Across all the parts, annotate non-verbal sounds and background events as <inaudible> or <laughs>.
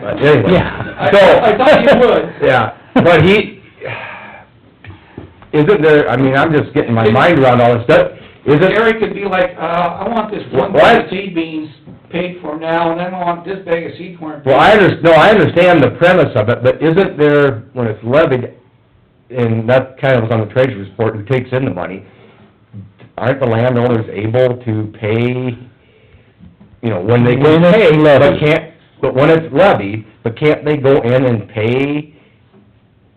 but anyway. Yeah. <laughs> So. I- I thought <laughs> you would. Yeah, but he, <sighs> isn't there, I mean, I'm just getting my mind around all this stuff, is it? Gary could be like, uh, I want this one What? bag of seed beans paid for now, and then I want this bag of seed corn. Well, I under, no, I understand the premise of it, but isn't there, when it's levied, and that kind of was on the treasurer's report, who takes in the money, aren't the landowners able to pay, you know, when they can When it's pay, but levied. can't, but when it's levied, but can't they go in and pay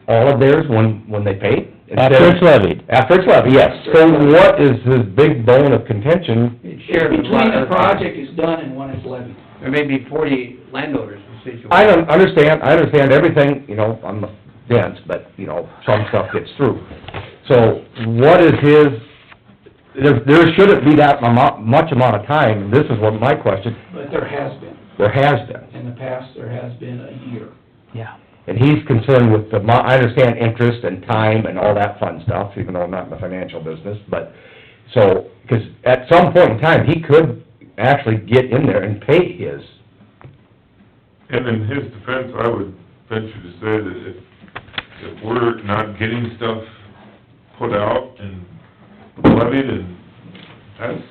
all of theirs when, when they pay? After it's levied. After it's levied, yes. So what is his big bone of contention? It's between the project is done and when it's levied. There may be forty landowners in the situation. I don't understand, I understand everything, you know, I'm dense, but, you know, some stuff gets through. So what is his, there, there shouldn't be that amount, much amount of time, and this is what my question, But there has been, there has been. in the past, there has been a year. Yeah. And he's concerned with the, mo- I understand interest and time and all that fun stuff, even though I'm not in the financial business, but, so, 'cause at some point in time, he could actually get in there and pay his. And in his defense, I would venture to say that if, if we're not getting stuff put out and levied, and that's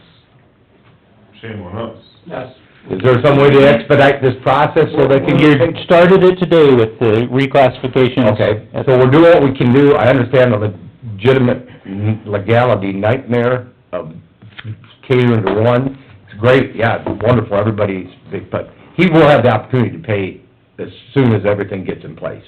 shame on us. That's, Is there some way to expedite this process so they can You get? started it today with the reclassification. Okay, so we're doing what we can do, I understand the legitimate legality nightmare of catering to one, it's great, yeah, it's wonderful, everybody's, big, but he will have the opportunity to pay as soon as everything gets in place,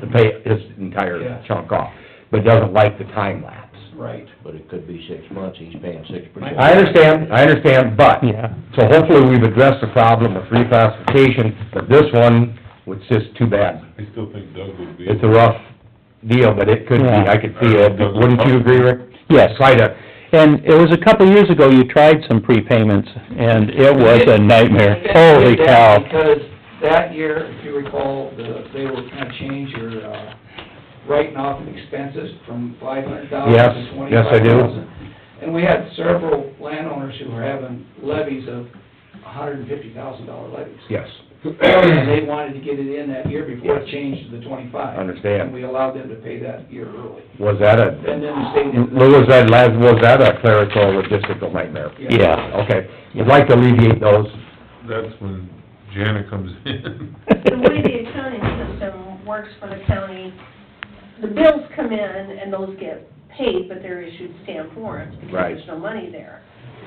to pay his Yeah. entire chunk off, but doesn't like the time lapse. right. But it could be six months, he's paying six percent. I understand, I understand, but, Yeah. so hopefully we've addressed the problem with reclassification, but this one, it's just too bad. I still think Doug would be. It's a rough deal, but it could be, I could see it, wouldn't you agree, Rick? Yes. Try to, And it was a couple of years ago, you tried some prepayments, and it was a nightmare. Holy cow. Because that year, if you recall, the, they were gonna change your, uh, writing off of expenses from five hundred thousand Yes, to yes, twenty-five I thousand. do. And we had several landowners who were having levies of hundred and fifty thousand dollar levies. yes, And they wanted to get it in that year before it Yes. changed to the twenty-five. Understand. And we allowed them to pay that year early. was that And a, then the state didn't. was that, last- was that a clerical logistical nightmare? Yeah. Okay, you'd like to alleviate those, That's when Jana comes in. <laughs> the way the accounting system works for the county, the bills come in and those get paid, but they're issued stamp warrants because Right. there's no money there.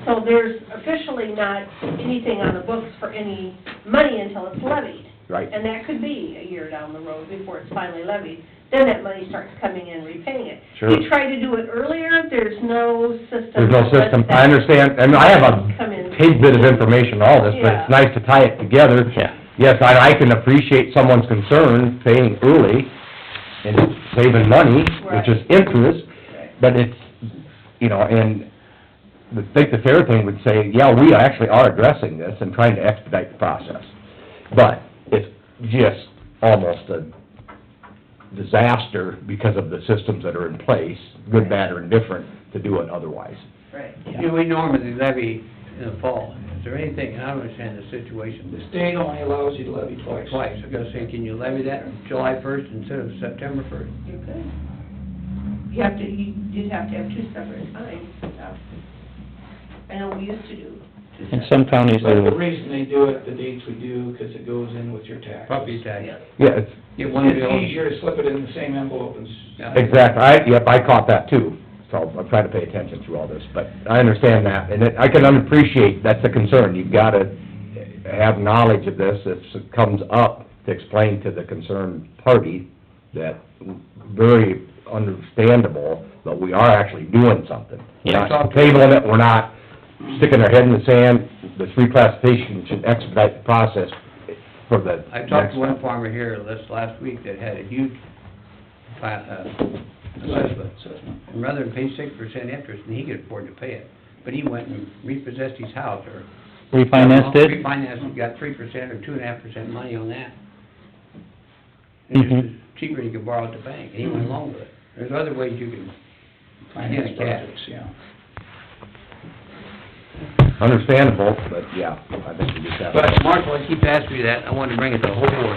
So there's officially not anything on the books for any money until it's levied. right? And that could be a year down the road before it's finally levied. Then that money starts coming in repaying it. Sure. You try to do it earlier, there's no system. There's no that lets system, I that understand, and I have Come in. a tidbit of information, on all this, but it's Yeah. nice to tie it together. Yeah. Yes, and I can appreciate someone's concern, paying early and saving money, which is interest, but it's, you know, and I think the fair thing would say, yeah, we actually are addressing this and trying to expedite the process. But it's just almost a disaster because of the systems that are in place, good, bad, or indifferent, to do it otherwise. Right. You know, we normally levy in the fall. Is there anything, I don't understand the situation, The state only allows you to levy twice. twice. I gotta say, can you levy that July first instead of September first? You could. You have to, you, you'd have to have two separate times, uh, I know we used to do two And separate. some counties But the do. reason they do it, the dates we do, 'cause it goes in with your tax. Property tax. Yeah. Yeah, it's, Get one bill. It's easier to slip it in the same envelope and, s- Yeah. Exactly, I, yep, I caught that too, so I'm trying to pay attention through all this, but I understand that, and it- I can appreciate, that's a concern, you've gotta have knowledge of this, if it comes up, to explain to the concerned party that very understandable, that we are actually doing something. We're Yeah. not tabling it, we're not sticking our head in the sand, this reclassification should expedite the process for the I talked next- to one farmer here this last week that had a huge pla- uh, assessment. And rather than pay six percent interest, and he could afford to pay it, but he went and repossessed his house or. Refinanced it? Refinanced, it, got three percent or two and a half percent money on that. It's Mhm. just cheaper than you could borrow at the bank, and he went along with it. There's other ways you can, finance Yeah. projects, yeah. Understandable, but yeah, I think we just have. but Mark, well, he keeps asking me that, I wanted to bring it to the whole board.